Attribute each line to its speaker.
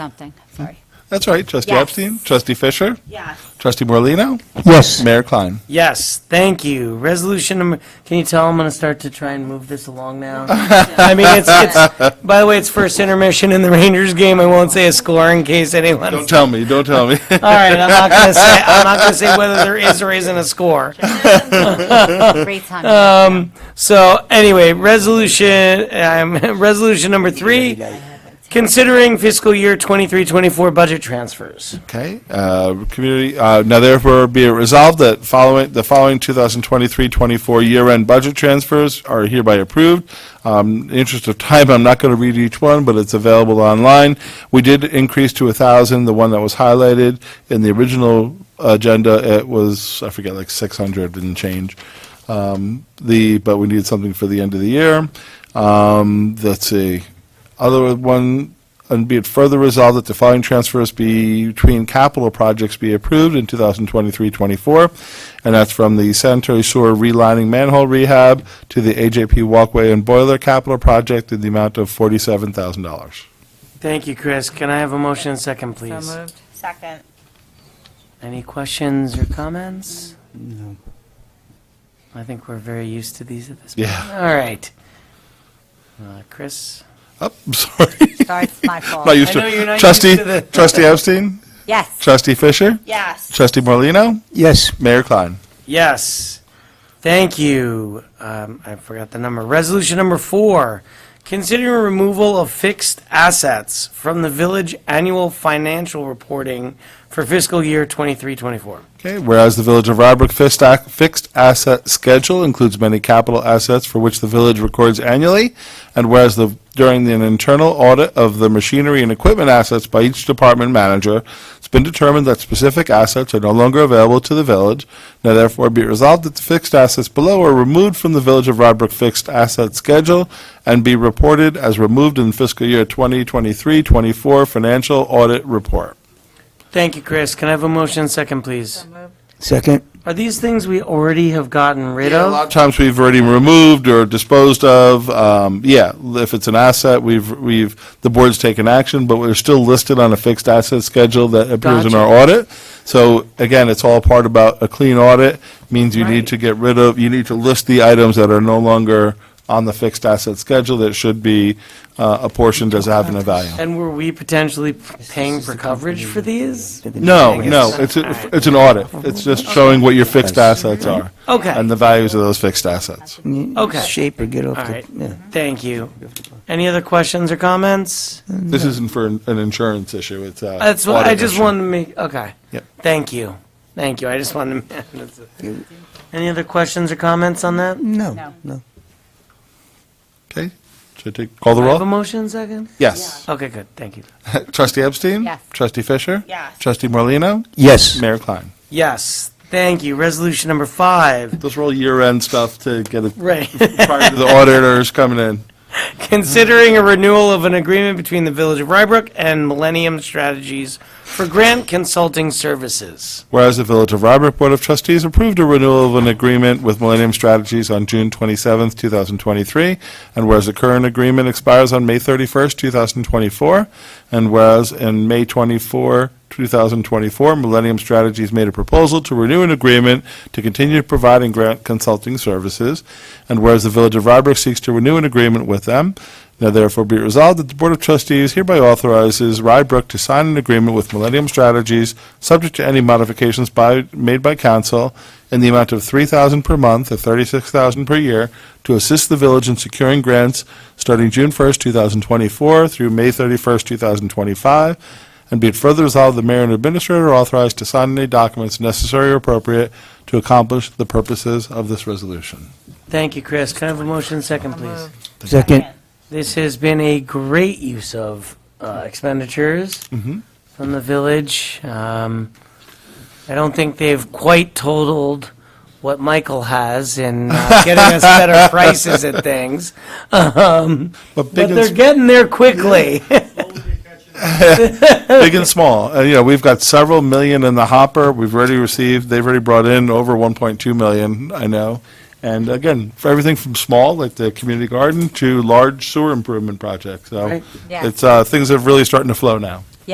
Speaker 1: something, sorry.
Speaker 2: That's right, trustee
Speaker 1: Yes.
Speaker 2: Epstein, trustee Fisher,
Speaker 1: Yes.
Speaker 2: trustee Morlino,
Speaker 3: Yes.
Speaker 2: mayor Klein.
Speaker 3: Yes, thank you. Resolution number, can you tell I'm going to start to try and move this along now? I mean, it's, it's, by the way, it's first intermission in the Rangers game. I won't say a score in case anyone.
Speaker 2: Don't tell me, don't tell me.
Speaker 3: All right, I'm not going to say, I'm not going to say whether there is or isn't a score.
Speaker 1: Great time.
Speaker 3: So anyway, resolution, um, resolution number three, considering fiscal year 23-24 budget transfers.
Speaker 2: Okay, uh, community, uh, now therefore be it resolved that following, the following 2023-24 year-end budget transfers are hereby approved. Um, in the Interest of time, I'm not going to read each one, but it's available online. We did increase to 1,000, the one that was highlighted. In the original agenda, it was, I forget, like 600 and change. Um, The, but we needed something for the end of the year. Um, Let's see, other one, and be it further resolved that the following transfers be between capital projects be approved in 2023-24, and that's from the sanitary sewer relining manhole rehab to the AJP walkway and boiler capital project in the amount of $47,000.
Speaker 3: Thank you, Chris. Can I have a motion and second,
Speaker 1: So
Speaker 3: please?
Speaker 1: moved. Second.
Speaker 3: Any questions or comments? No. I think we're very used to these at this point.
Speaker 2: Yeah.
Speaker 3: All right. Uh, Chris?
Speaker 2: Oh, I'm sorry.
Speaker 1: Sorry, it's my fault.
Speaker 2: Not used
Speaker 3: I know you're
Speaker 2: to.
Speaker 3: not
Speaker 2: Trustee,
Speaker 3: used to the-
Speaker 2: trustee Epstein,
Speaker 1: Yes.
Speaker 2: trustee Fisher,
Speaker 1: Yes.
Speaker 2: trustee Morlino,
Speaker 3: Yes.
Speaker 2: Mayor Klein.
Speaker 3: Yes. Thank you. Um, I forgot the number. Resolution number four, considering removal of fixed assets from the village annual financial reporting for fiscal year 23-24.
Speaker 2: Okay, whereas the Village of Rybrook fixed ac- fixed asset schedule includes many capital assets for which the village records annually, and whereas the, during an internal audit of the machinery and equipment assets by each department manager, it's been determined that specific assets are no longer available to the village, now therefore be it resolved that the fixed assets below are removed from the Village of Rybrook fixed asset schedule and be reported as removed in fiscal year 2023-24 financial audit report.
Speaker 3: Thank you, Chris. Can I have a motion and second, please?
Speaker 1: moved.
Speaker 4: Second,
Speaker 3: Are these things we already have gotten rid
Speaker 2: Yeah,
Speaker 3: of?
Speaker 2: a lot of times we've already removed or disposed of. Um, yeah, if it's an asset, we've we've the board's taken action, but we're still listed on a fixed asset schedule that appears in
Speaker 3: Gotcha.
Speaker 2: our audit. So again, it's all part about a clean audit means you
Speaker 3: Right.
Speaker 2: need to get rid of you need to list the items that are no longer on the fixed asset schedule that should be uh, apportioned as having a value.
Speaker 3: And were we potentially paying for coverage for these?
Speaker 2: No, no, it's a, it's an audit. It's just showing what your fixed assets are
Speaker 3: Okay,
Speaker 2: and the values of those fixed assets.
Speaker 3: Okay.
Speaker 4: shape or get off
Speaker 3: all
Speaker 4: the,
Speaker 3: right,
Speaker 4: yeah.
Speaker 3: thank you. Any other questions or comments?
Speaker 2: This isn't for an an insurance issue, it's a.
Speaker 3: That's what, I
Speaker 2: audit
Speaker 3: just
Speaker 2: issue.
Speaker 3: wanted to make, okay.
Speaker 2: Yep.
Speaker 3: Thank you, thank you, I just wanted to. Any other questions or comments on that?
Speaker 1: No.
Speaker 4: No, no.
Speaker 2: Okay, should I take, call the
Speaker 3: I Have a
Speaker 2: roll?
Speaker 3: motion second?
Speaker 2: Yes.
Speaker 3: Okay, good, thank you.
Speaker 2: Trustee Epstein?
Speaker 1: Yes.
Speaker 2: Trustee Fisher?
Speaker 1: Yes.
Speaker 2: Trustee Morlino?
Speaker 4: Yes.
Speaker 2: Mayor Klein.
Speaker 3: Yes, thank you. Resolution number five,
Speaker 2: Those are all year-end stuff to get it
Speaker 3: right.
Speaker 2: prior to the auditors coming in.
Speaker 3: Considering a renewal of an agreement between the Village of Rybrook and Millennium Strategies for grant consulting services.
Speaker 2: Whereas the Village of Rybrook Board of Trustees approved a renewal of an agreement with Millennium Strategies on June 27, 2023, and whereas the current agreement expires on May 31, 2024, and whereas in May 24, 2024, Millennium Strategies made a proposal to renew an agreement to continue providing grant consulting services, and whereas the Village of Rybrook seeks to renew an agreement with them, now therefore be it resolved that the Board of Trustees hereby authorizes Rybrook to sign an agreement with Millennium Strategies, subject to any modifications by, made by council, in the amount of three thousand per month or thirty-six thousand per year to assist the village in securing grants starting June first, two thousand twenty-four through May thirty-first, two thousand twenty-five, and be it further resolved, the mayor and administrator are authorized to sign any documents necessary or appropriate to accomplish the purposes of this resolution.
Speaker 3: Thank you, Chris. Can I have a motion second, please?
Speaker 4: Second,
Speaker 3: This has been a great use of uh, expenditures from the village. Um, I don't think they've quite totaled what Michael has in uh, getting us better prices at things,
Speaker 2: But big
Speaker 3: but
Speaker 2: and
Speaker 3: they're getting there quickly.
Speaker 2: big and small. Uh, you know, we've got several million in the hopper. We've already received, they've already brought in over 1.2 million, I know. And again, for everything from small, like the community garden, to large sewer improvement projects. So
Speaker 3: Right.
Speaker 1: Yeah.
Speaker 2: it's, uh, things are really starting to flow now.